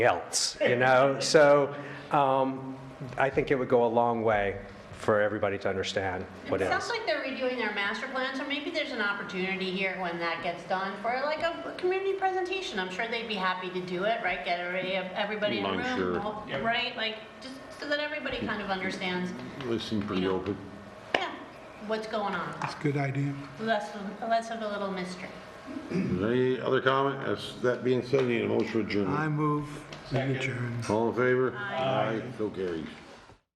else, you know? So um, I think it would go a long way for everybody to understand what It it sounds is. like they're redoing their master plan, so maybe there's an opportunity here when that gets done for like a community presentation. I'm sure they'd be happy to do it, right? Get every- everybody in the I'm room, sure. all- right? Like, just so that everybody kind of understands, They seem pretty Yeah. open. yeah, what's going on. That's a good idea. Less, less of a little mystery. Is there Any other comment? As that being said, I need a motion for I adjournment. move, we adjourn. All in favor? Aye. So carries.